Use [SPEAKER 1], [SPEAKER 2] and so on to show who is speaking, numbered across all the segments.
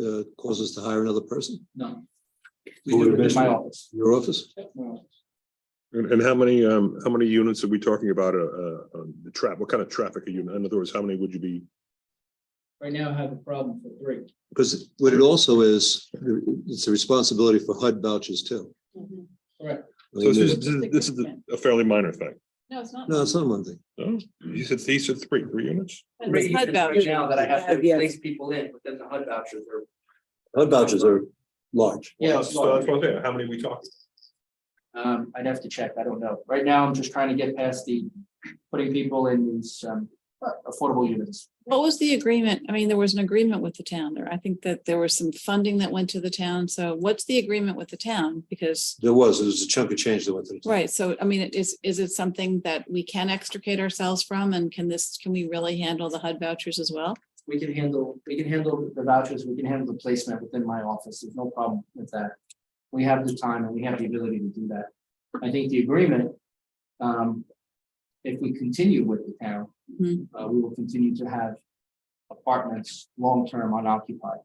[SPEAKER 1] uh, cause us to hire another person?
[SPEAKER 2] No.
[SPEAKER 1] We
[SPEAKER 3] Who
[SPEAKER 1] do
[SPEAKER 3] would
[SPEAKER 1] it in
[SPEAKER 3] have
[SPEAKER 2] My
[SPEAKER 1] my-
[SPEAKER 2] office.
[SPEAKER 1] Your office?
[SPEAKER 2] Yep, my office.
[SPEAKER 3] And, and how many, um, how many units are we talking about, uh, uh, um, the trap, what kind of traffic are you, in other words, how many would you be?
[SPEAKER 2] Right now I have a problem for three.
[SPEAKER 1] Because what it also is, it's a responsibility for HUD vouchers too.
[SPEAKER 4] Mhm.
[SPEAKER 1] I
[SPEAKER 3] So
[SPEAKER 1] mean,
[SPEAKER 3] this is,
[SPEAKER 1] the-
[SPEAKER 3] this is- this is a fairly minor thing.
[SPEAKER 4] No, it's not.
[SPEAKER 1] No, it's not one thing.
[SPEAKER 3] No, Oh, you said, these are three, three units?
[SPEAKER 4] But it's
[SPEAKER 5] Rate
[SPEAKER 4] HUD
[SPEAKER 5] users right
[SPEAKER 4] vouchers.
[SPEAKER 5] Now that I have to
[SPEAKER 4] Yeah, yeah.
[SPEAKER 5] place people in, but then the HUD vouchers are.
[SPEAKER 1] HUD vouchers are large.
[SPEAKER 2] Yeah.
[SPEAKER 3] So that's one thing, how many we talking?
[SPEAKER 2] Um, I'd have to check. I don't know. Right now, I'm just trying to get past the putting people in these um affordable units.
[SPEAKER 4] What was the agreement? I mean, there was an agreement with the town there. I think that there was some funding that went to the town. So what's the agreement with the town? Because,
[SPEAKER 1] There was, there was a chunk of change that went through.
[SPEAKER 4] right, so I mean, it is, is it something that we can extricate ourselves from? And can this, can we really handle the HUD vouchers as well?
[SPEAKER 2] We can handle, we can handle the vouchers, we can handle the placement within my office. There's no problem with that. We have the time and we have the ability to do that. I think the agreement, um, if we continue with the town,
[SPEAKER 4] Mhm.
[SPEAKER 2] uh, we will continue to have apartments long-term unoccupied.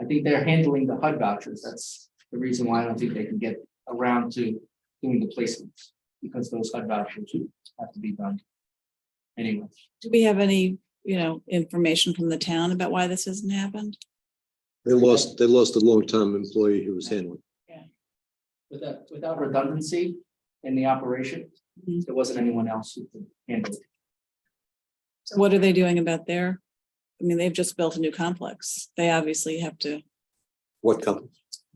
[SPEAKER 2] I think they're handling the HUD vouchers. That's the reason why I don't think they can get around to doing the placements, because those HUD vouchers have to be done. Anyway,
[SPEAKER 4] Do we have any, you know, information from the town about why this hasn't happened?
[SPEAKER 1] They lost, they lost a long-time employee who was handling.
[SPEAKER 2] without, without redundancy in the operation,
[SPEAKER 4] Mhm.
[SPEAKER 2] there wasn't anyone else who could handle it.
[SPEAKER 4] What are they doing about their? I mean, they've just built a new complex. They obviously have to.
[SPEAKER 1] What company?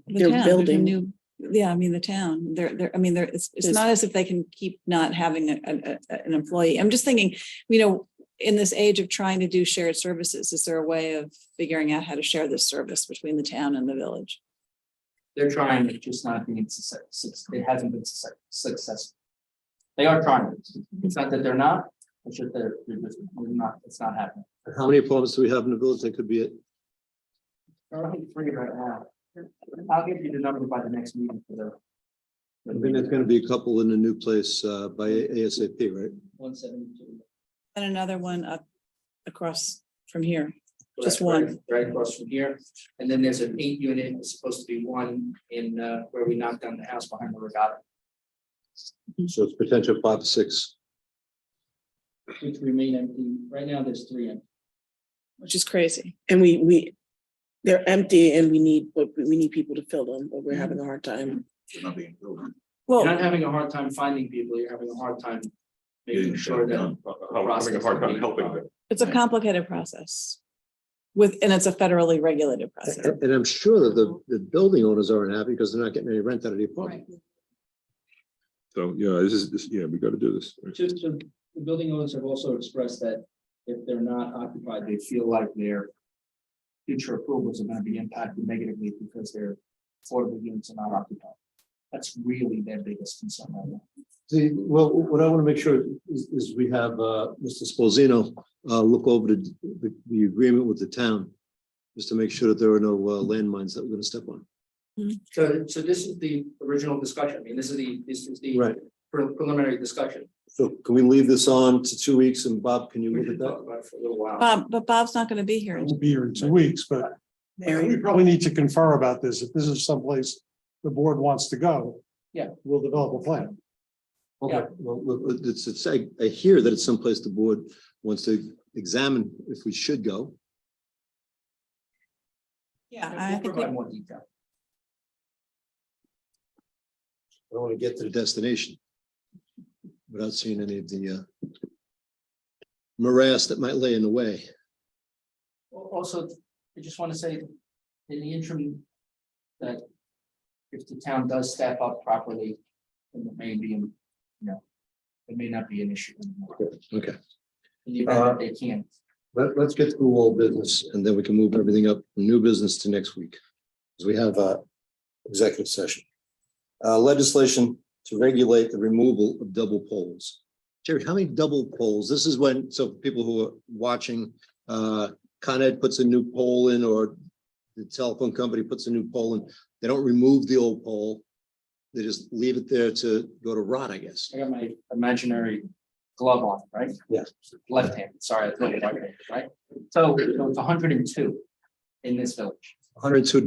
[SPEAKER 4] The
[SPEAKER 6] They're
[SPEAKER 4] town, there's a
[SPEAKER 6] building.
[SPEAKER 4] new- Yeah, I mean, the town, they're, they're, I mean, there, it's, it's
[SPEAKER 6] There's-
[SPEAKER 4] not as if they can keep not having a, a- a- an employee. I'm just thinking, you know, in this age of trying to do shared services, is there a way of figuring out how to share this service between the town and the village?
[SPEAKER 2] They're trying, it's just not being success, it hasn't been success, successful. They are trying, it's not that they're not, it's just they're, they're just, we're not, it's not happening.
[SPEAKER 1] How many apartments do we have in the village? That could be it.
[SPEAKER 2] They're only three right now. I'll give you the number by the next meeting for the.
[SPEAKER 1] I think there's gonna be a couple in a new place uh, by ASAP, right?
[SPEAKER 2] One seventy-two.
[SPEAKER 4] And another one up across from here. Just
[SPEAKER 2] That's right-
[SPEAKER 4] one.
[SPEAKER 2] Right across from here, and then there's an eight unit, it's supposed to be one in, uh, where we knocked down the house behind the regatta,
[SPEAKER 1] So it's potential five, to six.
[SPEAKER 2] which remain empty, right now there's three empty.
[SPEAKER 4] Which is crazy.
[SPEAKER 6] And we, we, they're empty and we need, but we need people to fill them, but we're having a hard time.
[SPEAKER 4] Oh.
[SPEAKER 2] You're not having a hard time finding people, you're having a hard time making sure that.
[SPEAKER 3] I'm having a hard time helping them.
[SPEAKER 4] It's a complicated process. With, and it's a federally regulated process.
[SPEAKER 1] And I'm sure that the, the building owners aren't happy because they're not getting any rent out of the apartment.
[SPEAKER 3] So, yeah, this is, this, yeah, we gotta do this.
[SPEAKER 2] Just, the building owners have also expressed that if they're not occupied, they feel like their future approvals are gonna be impacted negatively because their affordable units are not occupied. That's really their biggest concern right now.
[SPEAKER 1] See, well, what I want to make sure is, is we have, uh, Mr. Spalzino, uh, look over the, the, the agreement with the town. Just to make sure that there are no uh, landmines that we're gonna step on.
[SPEAKER 2] So, so this is the original discussion, I mean, this is the, this is the
[SPEAKER 1] Right.
[SPEAKER 2] pre- preliminary discussion.
[SPEAKER 1] So can we leave this on to two weeks and Bob, can you
[SPEAKER 2] We
[SPEAKER 1] look
[SPEAKER 2] can
[SPEAKER 1] at
[SPEAKER 2] talk
[SPEAKER 1] that?
[SPEAKER 2] about it for a little while.
[SPEAKER 4] Bob, but Bob's not going to be here.
[SPEAKER 7] will be here in two weeks, but I think we probably need to confer about this. If this is someplace the board wants to go.
[SPEAKER 2] Yeah.
[SPEAKER 7] We'll develop a plan.
[SPEAKER 1] Okay, well, well, it's, it's, I, I hear that it's someplace the board wants to examine if we should go.
[SPEAKER 4] Yeah,
[SPEAKER 2] We'll
[SPEAKER 4] I think,
[SPEAKER 2] provide
[SPEAKER 4] we-
[SPEAKER 2] More detail.
[SPEAKER 1] I want to get to the destination. Without seeing any of the, uh. Morass that might lay in the way.
[SPEAKER 2] Al- Also, I just want to say, in the interim, that if the town does step up properly, then it may be, you know, it may not be an issue anymore.
[SPEAKER 1] Okay,
[SPEAKER 2] In the event that they can't.
[SPEAKER 1] let, let's get through all business and then we can move everything up, from new business to next week. Because we have a executive session. Uh, legislation to regulate the removal of double poles. Jerry, how many double poles? This is when, so people who are watching, uh, Con Ed puts a new pole in or the telephone company puts a new pole in. They don't remove the old pole. They just leave it there to go to rot, I guess.
[SPEAKER 2] I got my imaginary glove on, right?
[SPEAKER 1] Yeah.
[SPEAKER 2] Left hand, sorry, I thought it was right hand, right? So you know, it's hundred and two in this village.
[SPEAKER 1] hundred two